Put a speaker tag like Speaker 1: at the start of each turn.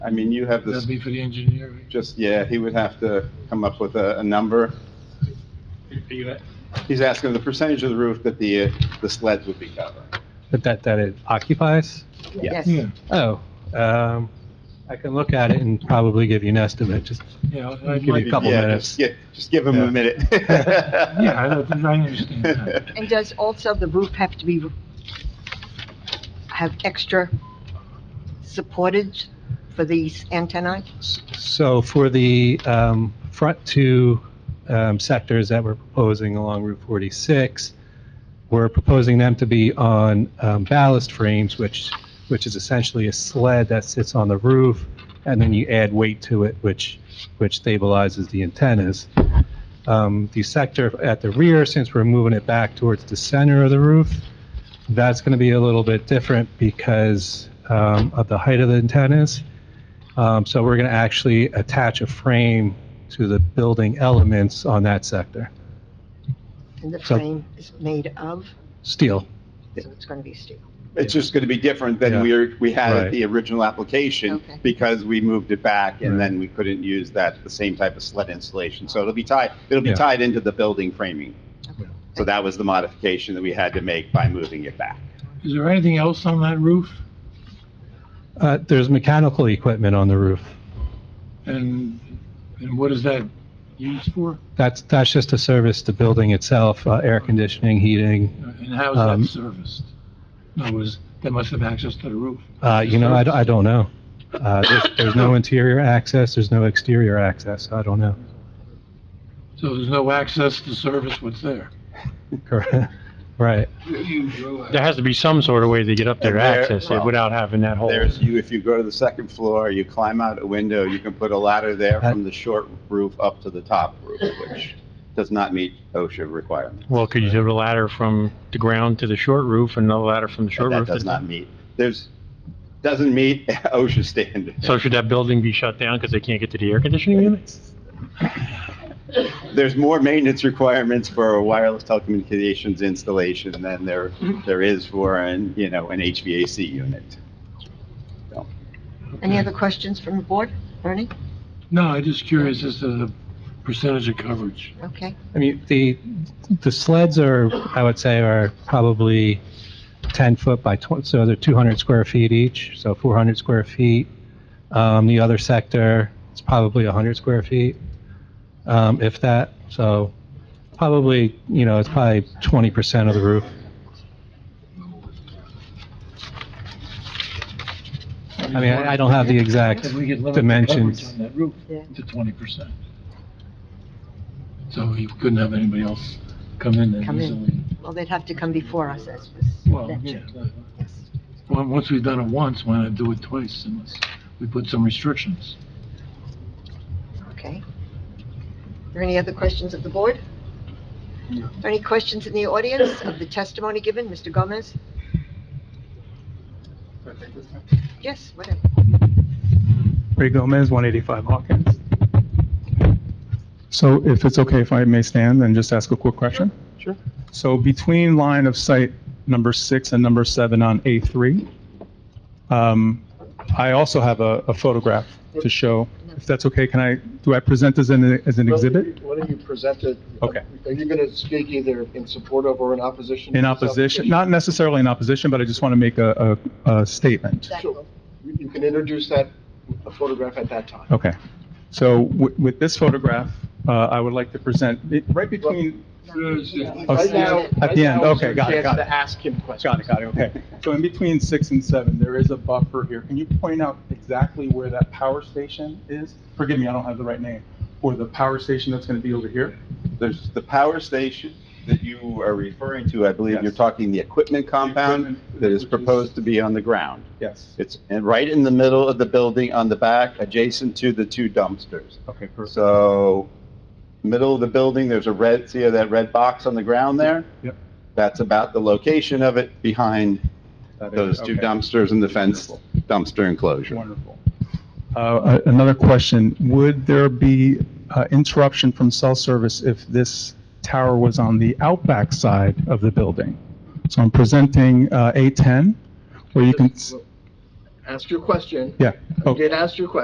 Speaker 1: I mean, you have this,
Speaker 2: That'd be for the engineer. right?
Speaker 1: just, yeah, he would have to come up with a, a number.
Speaker 2: Are you at-
Speaker 1: He's asking the percentage of the roof that the, uh, the sleds would be covering.
Speaker 3: But that, that it occupies?
Speaker 4: Yes.
Speaker 2: Yeah,
Speaker 3: Oh, um, I can look at it and probably give you an estimate, just,
Speaker 2: yeah. I
Speaker 3: Give me a
Speaker 2: might be-
Speaker 3: couple
Speaker 1: Yeah,
Speaker 3: minutes.
Speaker 1: just gi- Just give him
Speaker 3: Yeah.
Speaker 1: a minute.
Speaker 2: Yeah, I don't- I understand that.
Speaker 4: And does also the roof have to be, have extra supportage for these antennae?
Speaker 3: so for the, um, front two, um, sectors that we're proposing along Route 46, we're proposing them to be on, um, ballast frames, which, which is essentially a sled that sits on the roof, and then you add weight to it, which, which stabilizes the antennas. Um, the sector at the rear, since we're moving it back towards the center of the roof, that's going to be a little bit different because um, of the height of the antennas. Um, So we're going to actually attach a frame to the building elements on that sector.
Speaker 4: And the
Speaker 3: So-
Speaker 4: frame is made of,
Speaker 3: Steel,
Speaker 4: so it's going to be steel.
Speaker 1: It's just gonna be different
Speaker 3: Yeah.
Speaker 1: than we are we had
Speaker 3: Right.
Speaker 1: at the original application,
Speaker 4: Okay.
Speaker 1: because we moved it back,
Speaker 3: Right.
Speaker 1: and then we couldn't use that, the same type of sled installation. So it'll be tied, it'll be
Speaker 3: Yeah.
Speaker 1: tied into the building framing.
Speaker 4: Okay.
Speaker 1: So that was the modification that we had to make by moving it back.
Speaker 2: Is there anything else on that roof?
Speaker 3: Uh, there's mechanical equipment on the roof.
Speaker 2: And, and what is that used for?
Speaker 3: That's, that's just to service the building itself, uh, air conditioning, heating.
Speaker 2: And how
Speaker 3: Um,
Speaker 2: is that serviced? In other words, they must have access to the roof.
Speaker 3: Uh, You know, I d- I don't know. Uh, There's there's no interior access, there's no exterior access, I don't know.
Speaker 2: So there's no access to service what's there.
Speaker 3: Correct. Right.
Speaker 5: There has to be some sort of way to get up there to
Speaker 1: There-
Speaker 5: access it
Speaker 1: well,
Speaker 5: without having that whole.
Speaker 1: There's, you, if you go to the second floor, you climb out a window, you can put a ladder there
Speaker 3: That-
Speaker 1: from the short roof up to the top roof, which does not meet OSHA requirements.
Speaker 5: Well, could you do the ladder from the ground to the short roof and another ladder from the short
Speaker 1: That
Speaker 5: roof?
Speaker 1: does
Speaker 5: to-
Speaker 1: not meet, there's, doesn't meet OSHA standards.
Speaker 5: So should that building be shut down because they can't get to the air conditioning unit?
Speaker 1: There's more maintenance requirements for a wireless telecommunications installation than there, there is for an, you know, an HVAC unit.
Speaker 4: Any other questions from the board? Ernie?
Speaker 2: No, I'm just curious as to the percentage of coverage.
Speaker 4: Okay.
Speaker 3: I mean, the, the sleds are, I would say, are probably 10 foot by 20, so they're 200 square feet each, so 400 square feet. Um, The other sector, it's probably 100 square feet, um, if that, so probably, you know, it's probably 20% of the roof. I mean, I I don't have the exact
Speaker 2: If we could limit the coverage
Speaker 3: dimensions.
Speaker 2: on that roof
Speaker 4: Yeah.
Speaker 2: to twenty percent. So you couldn't have anybody else come in
Speaker 4: Come
Speaker 2: and
Speaker 4: in.
Speaker 2: easily.
Speaker 4: Well, they'd have to come before us, as was
Speaker 2: Well, yeah.
Speaker 4: mentioned. Yes.
Speaker 2: Well, once we've done it once, why not do it twice unless we put some restrictions?
Speaker 4: Okay. Are there any other questions of the board? Are Any questions in the audience of the testimony given, Mr. Gomez? Yes, whatever.
Speaker 6: Ray Gomez, 185 Hawkins. So if it's okay if I may stand and just ask a quick question?
Speaker 1: Sure.
Speaker 6: So between line of sight number six and number seven on A3, um, I also have a a photograph to show. If that's okay, can I, do I present this in, a- as an exhibit?
Speaker 7: Why don't you present it?
Speaker 6: Okay.
Speaker 7: Are you going to speak either in support of or in opposition? to
Speaker 6: In
Speaker 7: this
Speaker 6: opposition,
Speaker 7: application?
Speaker 6: not necessarily in opposition, but I just want to make a, a a statement.
Speaker 7: Sure. You you can introduce that photograph at that time.
Speaker 6: Okay. So wi- with this photograph, uh, I would like to present, it right between
Speaker 7: Right now-
Speaker 6: Oh, At the
Speaker 7: right
Speaker 6: end,
Speaker 7: now is
Speaker 6: okay,
Speaker 7: your
Speaker 6: got it,
Speaker 7: chance
Speaker 6: got it.
Speaker 7: to ask him questions.
Speaker 6: Got it, got it, okay. So in between six and seven, there is a buffer here. Can you point out exactly where that power station is? Forgive me, I don't have the right name. Or the power station that's going to be over here?
Speaker 1: There's the power station that you are referring to, I believe you're
Speaker 6: Yes.
Speaker 1: talking the equipment compound
Speaker 6: equipment,
Speaker 1: that is
Speaker 6: which is-
Speaker 1: proposed to be on the ground.
Speaker 6: Yes.
Speaker 1: It's in- right in the middle of the building on the back, adjacent to the two dumpsters.
Speaker 6: Okay, perfect.
Speaker 1: So, middle of the building, there's a red, see that red box on the ground there?
Speaker 6: Yep.
Speaker 1: That's about the location of it behind
Speaker 6: That is-
Speaker 1: those two
Speaker 6: okay.
Speaker 1: dumpsters and the fenced dumpster enclosure.
Speaker 6: Wonderful. Uh, a- Another question, would there be uh, interruption from cell service if this tower was on the outback side of the building? So I'm presenting uh, A10, where you can, s-
Speaker 7: Well, asked your question.
Speaker 6: Yeah.
Speaker 7: You
Speaker 6: Okay.
Speaker 7: did ask your question.